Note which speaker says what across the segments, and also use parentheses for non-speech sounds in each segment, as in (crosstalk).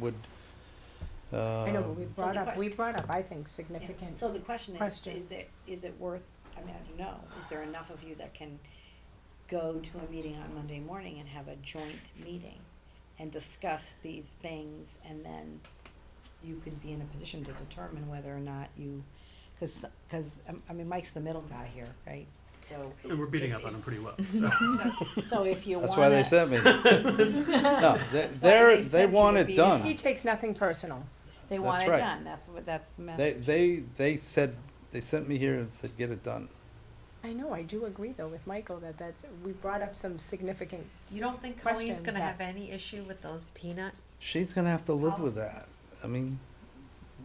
Speaker 1: would, uh.
Speaker 2: I know, but we
Speaker 3: So
Speaker 2: brought
Speaker 3: the
Speaker 2: up, we
Speaker 3: question-
Speaker 2: brought up, I think,
Speaker 3: Yeah.
Speaker 2: significant.
Speaker 3: So the question is,
Speaker 2: question.
Speaker 3: is there, is it worth, I mean, I don't know, is there enough of you that can go to a meeting on Monday morning and have a joint meeting and discuss these things and then you could be in a position to determine whether or not you, cause, cause, um, I mean, Mike's the middle guy here, right? So,
Speaker 4: And we're beating up on them pretty well, so.
Speaker 3: so if you wanna.
Speaker 1: That's why they
Speaker 3: (laughs)
Speaker 1: sent me. No, they, they're,
Speaker 3: they
Speaker 1: they
Speaker 3: sent you
Speaker 1: want
Speaker 3: to
Speaker 1: it
Speaker 3: be-
Speaker 2: He
Speaker 1: done.
Speaker 2: takes nothing personal.
Speaker 3: They want
Speaker 1: That's
Speaker 3: it
Speaker 1: right.
Speaker 3: done, that's what, that's the
Speaker 1: They,
Speaker 3: message.
Speaker 1: they, they said, they sent me here and said, get it done.
Speaker 2: I know, I do agree though with Michael that that's, we brought up some significant,
Speaker 5: You don't think
Speaker 2: Questions
Speaker 5: Colleen's gonna
Speaker 2: that-
Speaker 5: have any issue with those peanut?
Speaker 1: She's gonna have to live with that. I mean,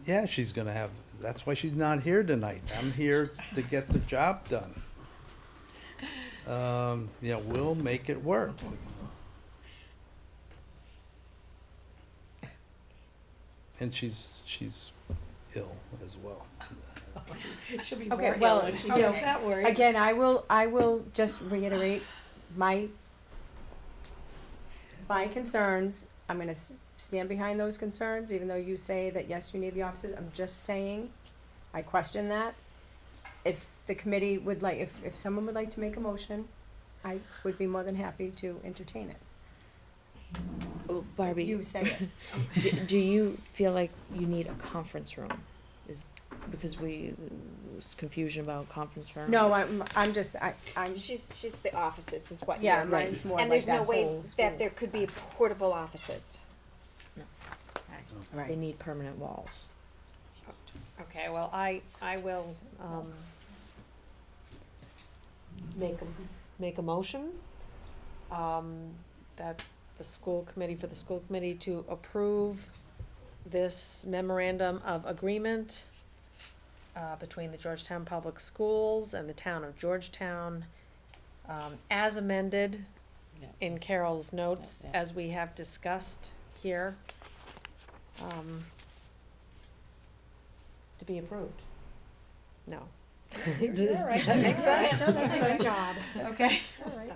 Speaker 1: yeah, she's gonna have, that's why she's not here tonight. I'm here to get the job done. Um, you know, we'll make it work. And she's, she's ill as well.
Speaker 3: Should be
Speaker 2: Okay,
Speaker 3: more
Speaker 2: well,
Speaker 3: ill if she
Speaker 2: okay.
Speaker 3: knows that word.
Speaker 2: again, I will, I will just reiterate my, my concerns. I'm gonna s- stand behind those concerns, even though you say that, yes, you need the offices, I'm just saying, I question that. If the committee would like, if, if someone would like to make a motion, I would be more than happy to entertain it.
Speaker 6: Oh, Barbie,
Speaker 2: You say it.
Speaker 6: do, do you feel like you need a conference room? Is, because we, there's confusion about conference room.
Speaker 2: No, I'm, I'm just, I, I'm,
Speaker 7: She's she's the offices is what.
Speaker 2: yeah,
Speaker 7: you're-
Speaker 2: mine's more
Speaker 7: And
Speaker 2: like
Speaker 7: there's
Speaker 2: that
Speaker 7: no way
Speaker 2: whole school.
Speaker 7: that there could be portable offices.
Speaker 6: They
Speaker 2: Right,
Speaker 6: need permanent walls.
Speaker 5: Okay, well, I, I will, um. Make a, make a motion, um, that the school committee, for the school committee to approve this memorandum of agreement uh, between the Georgetown Public Schools and the town of Georgetown, um, as amended
Speaker 3: Yeah. (laughs)
Speaker 5: in Carol's notes,
Speaker 3: Yeah, yeah.
Speaker 5: as we have discussed here. Um, to be approved. No. Does, does that make sense?
Speaker 2: So that's
Speaker 7: Nice
Speaker 2: good.
Speaker 7: job.
Speaker 5: Okay.
Speaker 2: all right.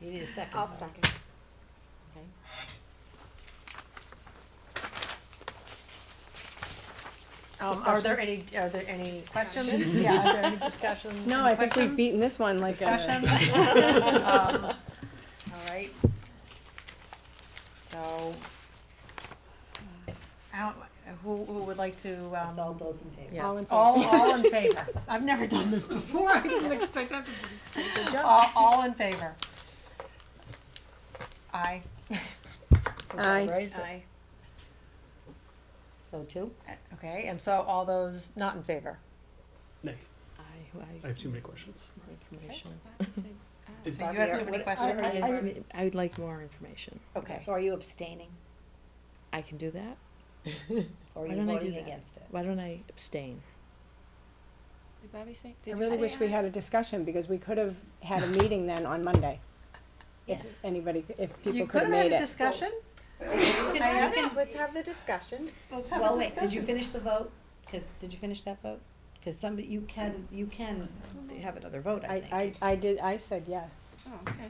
Speaker 3: You need a 2nd
Speaker 7: I'll second.
Speaker 5: Um, are there any, are there any questions?
Speaker 7: Discussion.
Speaker 5: Yeah, are there any discussions?
Speaker 2: No, I think we've
Speaker 5: Questions?
Speaker 2: beaten this one like
Speaker 5: Discussion?
Speaker 2: (laughs)
Speaker 5: (laughs)
Speaker 2: a,
Speaker 5: Um, All right. So. I don't, who, who would like to,
Speaker 3: That's all
Speaker 5: um,
Speaker 3: those in favor.
Speaker 5: yes,
Speaker 2: All in favor.
Speaker 5: all, all in favor? I've never done this before, (laughs) I didn't expect that to be. (laughs) All, all in favor? Aye. Since I
Speaker 2: Aye.
Speaker 5: raised it.
Speaker 3: Aye. So two?
Speaker 5: Okay, and so all those not in favor?
Speaker 4: Nay,
Speaker 6: I,
Speaker 4: I have too many questions.
Speaker 6: I, information.
Speaker 4: Did-
Speaker 5: So you
Speaker 3: Barbie,
Speaker 5: have too many
Speaker 3: what-
Speaker 6: I,
Speaker 5: questions?
Speaker 6: I- I would like more information.
Speaker 5: Okay,
Speaker 3: So are you abstaining
Speaker 6: I can do that.
Speaker 3: (laughs) or are
Speaker 6: Why
Speaker 3: you
Speaker 6: don't I do
Speaker 3: voting
Speaker 6: that?
Speaker 3: against it?
Speaker 6: Why don't I abstain?
Speaker 2: I really wish we had a discussion because we could have had a meeting then on Monday. If
Speaker 3: Yes.
Speaker 2: anybody, if people
Speaker 5: you
Speaker 2: could
Speaker 5: could
Speaker 2: have
Speaker 5: have had
Speaker 2: made
Speaker 5: a
Speaker 2: it.
Speaker 5: discussion?
Speaker 7: So let's,
Speaker 5: I have it.
Speaker 7: let's have the discussion.
Speaker 5: Let's have a
Speaker 3: Well, wait, did you
Speaker 5: discussion.
Speaker 3: finish the vote? Cause, did you finish that vote? Cause somebody, you can, you can have another vote, I think.
Speaker 2: I, I, I did, I said yes.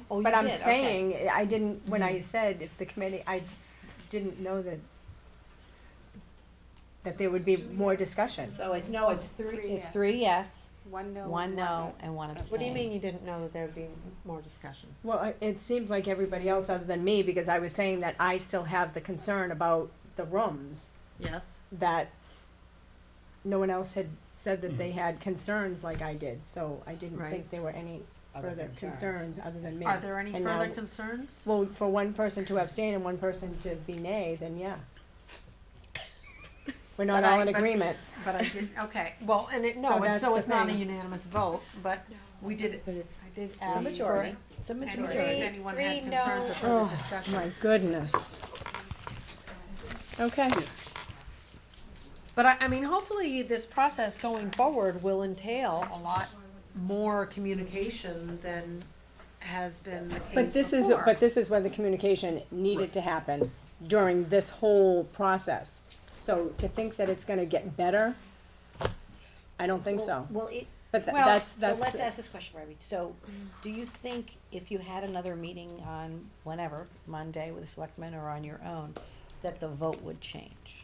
Speaker 3: Oh, you
Speaker 2: But I'm
Speaker 3: did, okay.
Speaker 2: saying, I didn't, when
Speaker 5: Hmm.
Speaker 2: I said if the committee, I didn't know that, that there would be more discussion.
Speaker 3: So it's, no, it's three,
Speaker 2: Three
Speaker 3: it's
Speaker 2: yes.
Speaker 3: three yes,
Speaker 2: One no.
Speaker 3: one no, and one abstain.
Speaker 5: What do you mean you didn't know that there'd be more discussion?
Speaker 2: Well, I- it seemed like everybody else other than me, because I was saying that I still have the concern about the rooms,
Speaker 5: Yes.
Speaker 2: that no one else had said that they had concerns like I did, so I didn't
Speaker 5: Right.
Speaker 2: think there were any
Speaker 3: Other
Speaker 2: further concerns other than me.
Speaker 5: Are there any
Speaker 2: And
Speaker 5: further
Speaker 2: now-
Speaker 5: concerns?
Speaker 2: Well, for one person to abstain and one person to be nay, then yeah. We're not
Speaker 5: But
Speaker 2: all
Speaker 5: I-
Speaker 2: in
Speaker 5: but-
Speaker 2: agreement.
Speaker 5: But I didn't, okay, well, and it,
Speaker 2: So
Speaker 5: no, it's,
Speaker 2: that's the
Speaker 5: so it's not a
Speaker 2: thing.
Speaker 5: unanimous vote, but we did,
Speaker 6: But it's,
Speaker 5: I did
Speaker 3: It's a
Speaker 5: ask for.
Speaker 3: majority.
Speaker 6: it's a
Speaker 5: and
Speaker 7: majority.
Speaker 5: If anyone had
Speaker 7: Three
Speaker 5: concerns
Speaker 7: no.
Speaker 5: or further
Speaker 2: Oh, My
Speaker 5: discussion.
Speaker 2: goodness. Okay,
Speaker 5: But I, I mean, hopefully this process going forward will entail a lot more communication than has been the case before.
Speaker 2: but this is, but this is when the communication needed to happen during this whole process. So to think that it's gonna get better, I don't think so.
Speaker 3: Well, it,
Speaker 2: But tha-
Speaker 5: Well,
Speaker 2: that's,
Speaker 3: so
Speaker 2: that's,
Speaker 3: let's ask this question, Barbie. So, do you think if you had another meeting on whenever, Monday with the selectmen or on your own, that the vote would change.